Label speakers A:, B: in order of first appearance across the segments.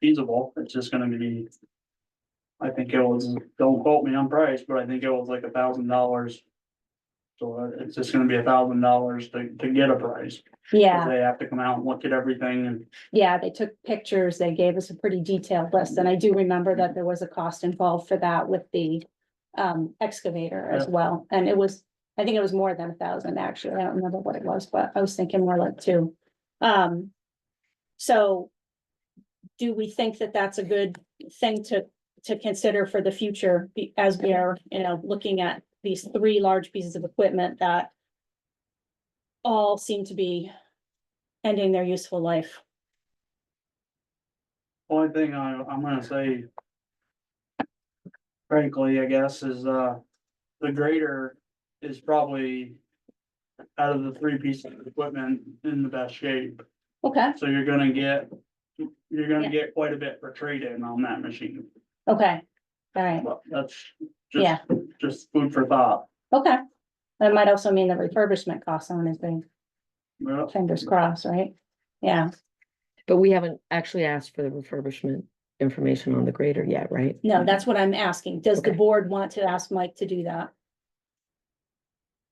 A: feasible, it's just gonna be. I think it was, don't quote me on price, but I think it was like a thousand dollars. So uh, it's just gonna be a thousand dollars to, to get a price, 'cause
B: Yeah,
A: they have to come out and look at everything and
B: yeah, they took pictures. They gave us a pretty detailed list, and I do remember that there was a cost involved for that with the um excavator as well, and it was, I think it was more than a thousand, actually. I don't remember what it was, but I was thinking more like two. Um, so do we think that that's a good thing to to consider for the future be- as we are, you know, looking at these three large pieces of equipment that all seem to be ending their useful life?
A: Only thing I, I'm gonna say. Frankly, I guess, is, uh, the grader is probably. Out of the three pieces of equipment in the best shape,
B: Okay,
A: so you're gonna get. You're gonna
B: Yeah.
A: get quite a bit for trade-in on that machine,
B: okay, all right,
A: but that's
B: Yeah.
A: just, just food for thought.
B: okay. That might also mean the refurbishment costs on his thing,
A: Well,
B: fingers crossed, right? Yeah,
C: But we haven't actually asked for the refurbishment information on the grader yet, right?
B: no, that's what I'm asking. Does the
C: Mm-hmm. Okay.
B: board want to ask Mike to do that?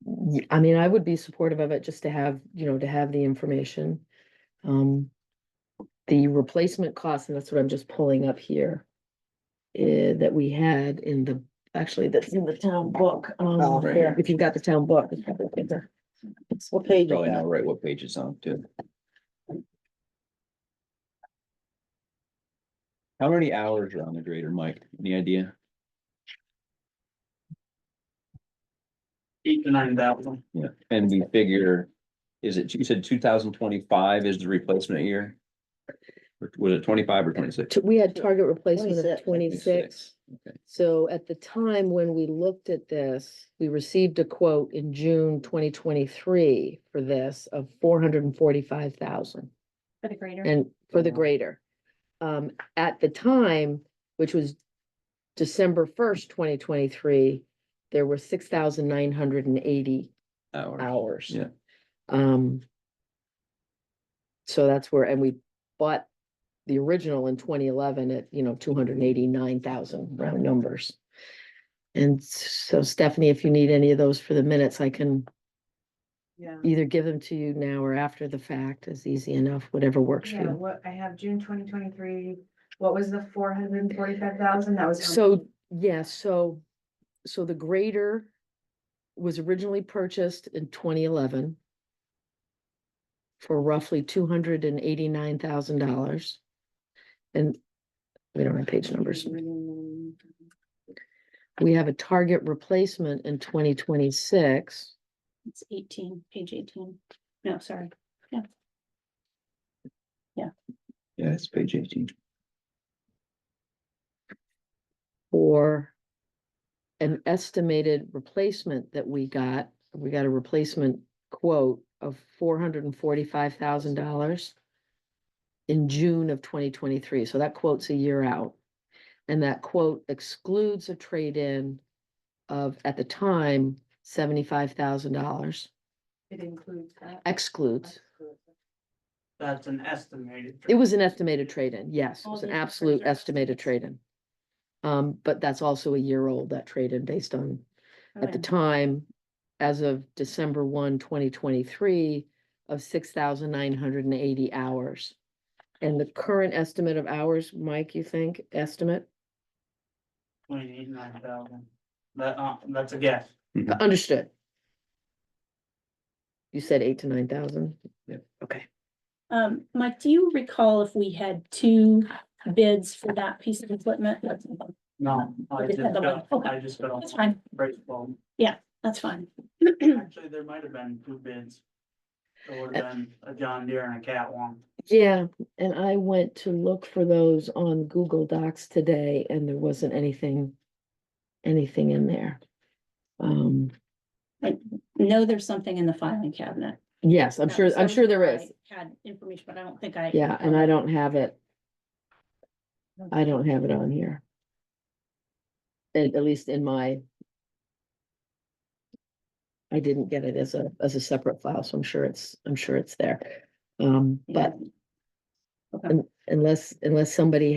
C: Y- I mean, I would be supportive of it just to have, you know, to have the information. Um, the replacement cost, and that's what I'm just pulling up here. eh, that we had in the, actually, that's in the town book,
D: Oh,
C: um,
D: right
C: here, if you've got the town book. it's probably in there.
D: What page?
E: Probably not right what page it's on too. How many hours are on the grader, Mike? Any idea?
A: eight to nine thousand,
E: Yeah. And we figure, is it, you said two thousand twenty-five is the replacement year? Or Was it twenty-five or twenty-six?
C: T- We had target replacement of
D: 26.
C: twenty-six.
E: Okay.
C: So at the time when we looked at this, we received a quote in June twenty twenty-three for this of four hundred and forty-five thousand
B: For the greater.
C: and for the
D: Wow.
C: greater. Um, at the time, which was December first, twenty twenty-three, there were six thousand nine hundred and eighty
E: Hours.
C: hours.
E: Yeah.
C: Um. So that's where, and we bought the original in twenty eleven at, you know, two hundred and eighty-nine thousand round numbers. And so Stephanie, if you need any of those for the minutes, I can
F: Yeah,
C: either give them to you now or after the fact is easy enough, whatever works for
F: yeah,
C: you.
F: what, I have June twenty twenty-three, what was the four hundred and forty-five thousand, that was. how much?
C: So, yeah, so, so the grader was originally purchased in twenty eleven for roughly two hundred and eighty-nine thousand dollars. And we don't have page numbers. We have a target replacement in twenty twenty-six.
B: It's eighteen, page eighteen. No, sorry.
E: Yeah, it's page eighteen.
C: for an estimated replacement that we got, we got a replacement quote of four hundred and forty-five thousand dollars in June of twenty twenty-three, so that quote's a year out. And that quote excludes a trade-in of, at the time, seventy-five thousand dollars,
F: It includes that.
C: excludes.
A: that's an estimated.
C: It was an estimated trade-in, yes, it
B: All
C: was
B: the
C: an
B: other
C: absolute
B: treasures.
C: estimated trade-in. Um, but that's also a year old, that trade-in, based on at the time, as of December 1, 2023, of six thousand nine hundred and eighty hours. And the current estimate of hours, Mike, you think, estimate?
A: Twenty-eight, nine thousand, that, uh, that's a guess.
C: Understood. You said eight to nine thousand?
E: Yep.
C: Okay.
B: Um, Mike, do you recall if we had two bids for that piece of equipment?
A: No, I
B: Okay,
A: just
B: another
A: got,
B: one. Okay.
A: I just got
B: That's
A: a
B: fine,
A: break phone.
B: that's fine.
A: Actually, there might have been two bids. There would
C: Uh,
A: have been a John Deere and a Cat one.
C: Yeah, and I went to look for those on Google Docs today and there wasn't anything, anything in there. Um,
B: No, there's something in the filing cabinet.
C: yes, I'm
B: That
C: sure,
B: was
C: I'm sure there
B: something
C: is.
B: I Had information, but I don't think I.
C: Yeah, and I don't have it. I don't have it on here. At, at least in my. I didn't get it as a, as a separate file, so I'm sure it's, I'm sure it's there. Um,
B: Yeah.
C: but
B: Okay.
C: and unless, unless somebody